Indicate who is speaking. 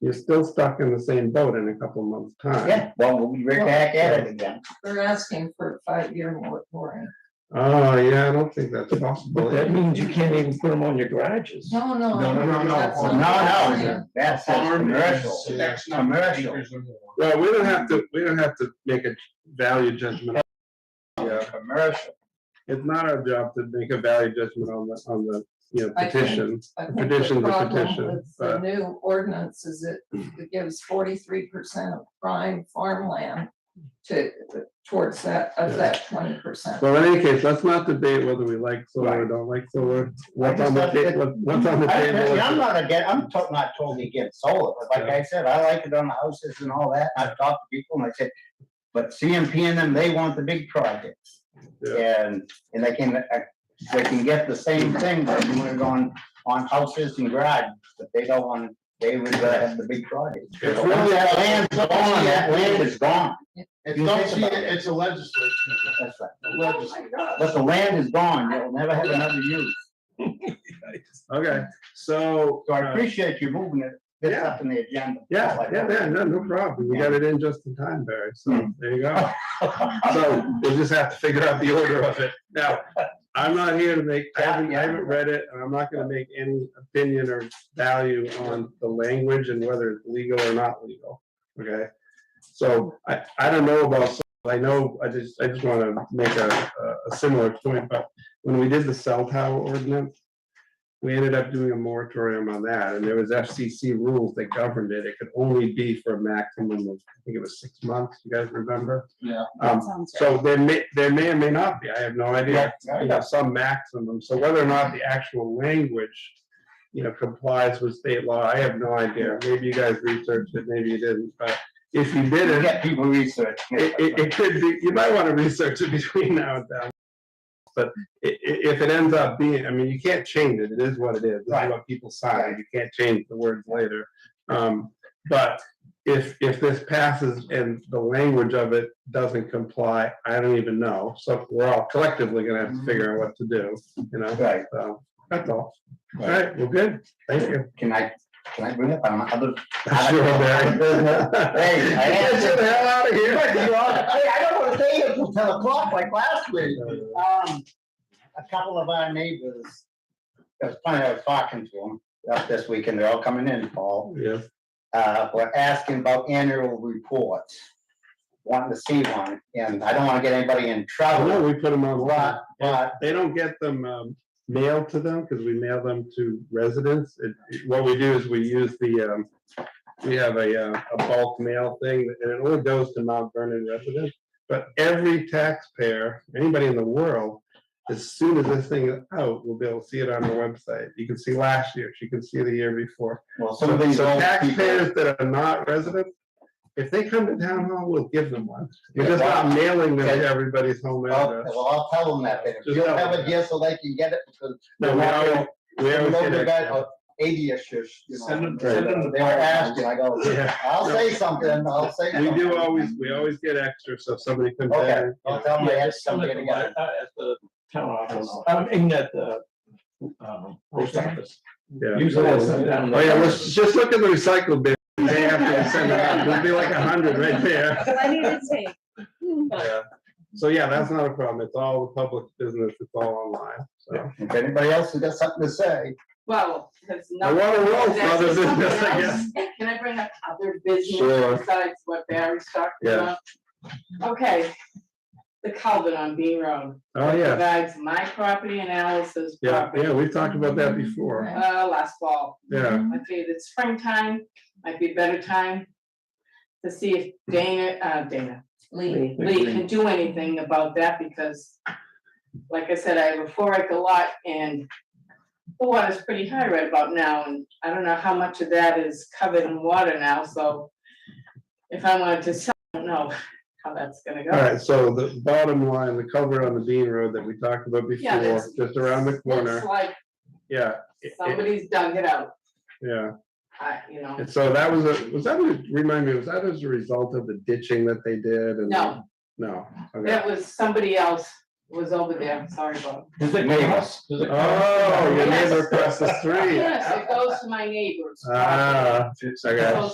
Speaker 1: you're still stuck in the same boat in a couple months' time.
Speaker 2: Yeah, well, we'll be right back at it again.
Speaker 3: They're asking for a five-year moratorium.
Speaker 1: Oh, yeah, I don't think that's possible.
Speaker 4: That means you can't even put them on your garages.
Speaker 3: No, no.
Speaker 5: No, no, no, no.
Speaker 3: that's
Speaker 5: Oh,
Speaker 2: No,
Speaker 3: not
Speaker 2: no,
Speaker 3: the plan.
Speaker 2: it's- that's a
Speaker 5: Farm is,
Speaker 2: commercial.
Speaker 5: uh, X number of
Speaker 2: Commercial.
Speaker 5: acres or more.
Speaker 1: Well, we don't have to, we don't have to make a value judgment. Yeah,
Speaker 2: Commercial.
Speaker 1: it's not our job to make a value judgment on the, on the, you know,
Speaker 3: I think-
Speaker 1: petition.
Speaker 3: I think the
Speaker 1: Petition's a
Speaker 3: problem
Speaker 1: petition,
Speaker 3: with The
Speaker 1: but-
Speaker 3: new ordinance is it, it gives forty-three percent of prime farmland to, towards that, of that twenty percent.
Speaker 1: Well, in any case, let's not debate whether we like solar or don't like solar. What's on the, ta- what- what's on the
Speaker 2: I-
Speaker 1: table?
Speaker 2: I'm
Speaker 1: is-
Speaker 2: not again, I'm to- not totally against solar, but like I said, I like it on the houses and all that, and I've talked to people and I said, but CMP and them, they want the big projects.
Speaker 1: Yeah.
Speaker 2: And, and they can, uh, they can get the same thing, but you wanna go on, on houses and garages, but they don't want, they would rather have the big projects.
Speaker 1: It's
Speaker 2: But Once
Speaker 1: really-
Speaker 2: that land's gone, that land is gone.
Speaker 5: It's
Speaker 2: You
Speaker 5: not,
Speaker 2: think
Speaker 5: see,
Speaker 2: about it.
Speaker 5: it's a legislature,
Speaker 2: That's right.
Speaker 5: a legislature.
Speaker 2: But the land is gone, it'll never have another use.
Speaker 1: Okay, so.
Speaker 2: So I
Speaker 1: uh,
Speaker 2: appreciate you moving it, this up in the agenda.
Speaker 1: Yeah, yeah, yeah, no, no problem. We got it in just in time, Barry, so there you go. So we'll just have to figure out the order of it. Now, I'm not here to make, I haven't, I haven't read it, and I'm not gonna make any opinion or value on the language and whether it's legal or not legal, okay? So I, I don't know about, s- I know, I just, I just wanna make a, a- a similar point, but when we did the cell tower ordinance, we ended up doing a moratorium on that, and there was FCC rules that governed it. It could only be for a maximum of, I think it was six months, you guys remember?
Speaker 5: Yeah.
Speaker 1: Um, so there may, there may or may not be, I have no idea, you know, some maximum, so whether or not the actual language, you know, complies with state law, I have no idea, maybe you guys researched it, maybe you didn't, but if you
Speaker 2: You
Speaker 1: didn't,
Speaker 2: got people research.
Speaker 1: it, it, it could be, you might want to research it between now and then. But i- i- if it ends up being, I mean, you can't change it, it is what it is, this is
Speaker 2: Right.
Speaker 1: what people sign, you can't change the words later. Um, but if, if this passes and the language of it doesn't comply, I don't even know, so we're all collectively gonna have to figure out what to do, you know,
Speaker 2: Right.
Speaker 1: so, that's all. All right, well, good, thank you.
Speaker 2: Can I, can I bring up on other?
Speaker 1: Sure, Barry.
Speaker 2: Hey, I am-
Speaker 1: Get the hell out of
Speaker 2: Hey,
Speaker 1: here.
Speaker 2: I don't wanna stay here till ten o'clock like last week. Um, a couple of our neighbors, it was funny, I was talking to them up this weekend, they're all coming in, Paul.
Speaker 1: Yeah,
Speaker 2: uh, were asking about annual reports. Wanting to see one, and I don't wanna get anybody
Speaker 1: I
Speaker 2: in
Speaker 1: know,
Speaker 2: trouble,
Speaker 1: we put them on the lot.
Speaker 2: but, but,
Speaker 1: They don't get them um, mailed to them because we mail them to residents. It- it- What we do is we use the, um, we have a uh, a bulk mail thing and it only goes to Mount Vernon residents. But every taxpayer, anybody in the world, as soon as this thing is out, will be able to see it on the website. You can see last year, you can see the year before.
Speaker 2: well, some
Speaker 1: So
Speaker 2: of these
Speaker 1: so
Speaker 2: old people.
Speaker 1: taxpayers that are not residents, if they come to town hall, we'll give them one. We're just
Speaker 2: Yeah.
Speaker 1: not mailing them to everybody's home
Speaker 2: Well,
Speaker 1: address.
Speaker 2: well, I'll tell them that, then, if
Speaker 1: Just
Speaker 2: you
Speaker 1: tell
Speaker 2: have
Speaker 1: them
Speaker 2: it here so they can get it, because.
Speaker 1: No, we always, we
Speaker 2: Some
Speaker 1: always get
Speaker 2: local guy,
Speaker 1: extra.
Speaker 2: uh, Eighty-ish, you know.
Speaker 5: Send them-
Speaker 1: send
Speaker 2: They
Speaker 5: them the
Speaker 2: were
Speaker 5: bill.
Speaker 2: asking, I go,
Speaker 1: Yeah.
Speaker 2: I'll say something, I'll say
Speaker 1: We
Speaker 2: something.
Speaker 1: do always, we always get extra, so if somebody comes
Speaker 2: Okay,
Speaker 1: in.
Speaker 2: I'll tell them they
Speaker 4: Yeah,
Speaker 2: have to
Speaker 4: just
Speaker 2: come
Speaker 4: send
Speaker 2: get
Speaker 4: it
Speaker 2: it.
Speaker 4: to my- uh, At the town office, I mean, at the, uh, um, post office.
Speaker 1: Yeah.
Speaker 4: Usually I send it down.
Speaker 1: Oh, yeah, let's just look at the recycle bin. They have to send it out. There'll be like a hundred right there.
Speaker 6: Plenty to take.
Speaker 1: Yeah. So, yeah, that's not a problem. It's all the public business. It's all online, so.
Speaker 2: If anybody else has got something to say,
Speaker 7: Well, there's
Speaker 1: I
Speaker 7: nothing.
Speaker 1: want to roll for
Speaker 7: there's
Speaker 1: other
Speaker 7: something
Speaker 1: business, I
Speaker 7: else.
Speaker 1: guess.
Speaker 7: Can I bring up other
Speaker 1: Sure.
Speaker 7: business besides what Barry's talking
Speaker 1: Yeah.
Speaker 7: about? Okay, the culvert on Bean Road.
Speaker 1: Oh, yeah.
Speaker 7: Divides my property and Alice's
Speaker 1: Yeah,
Speaker 7: property,
Speaker 1: yeah, we've talked about that before.
Speaker 7: uh, last fall.
Speaker 1: Yeah,
Speaker 7: I figured it's springtime, might be a better time to see if Dana, uh, Dana,
Speaker 3: Lee,
Speaker 7: Lee can do anything about that because, like I said, I have a four acre lot and the water's pretty high right about now, and I don't know how much of that is covered in water now, so if I wanted to sell, I don't know how that's gonna
Speaker 1: all
Speaker 7: go.
Speaker 1: right, so the bottom line, the cover on the Dean Road that we talked about
Speaker 7: Yeah,
Speaker 1: before,
Speaker 7: that's-
Speaker 1: just around the corner,
Speaker 7: Looks like
Speaker 1: yeah. it- it-
Speaker 7: somebody's dug it out,
Speaker 1: Yeah.
Speaker 7: I, you know,
Speaker 1: And so that was a, was that, a- remind me, was that as a result of the ditching that they did? and-
Speaker 7: No.
Speaker 1: No, okay.
Speaker 7: that was, somebody else was over there, sorry, Bob.
Speaker 4: Does it
Speaker 2: neighbors,
Speaker 4: does it-
Speaker 1: Oh, your
Speaker 7: Yes.
Speaker 1: neighbor across the street.
Speaker 7: Yes, it goes to my neighbors.
Speaker 1: Ah,
Speaker 5: It's-
Speaker 1: okay.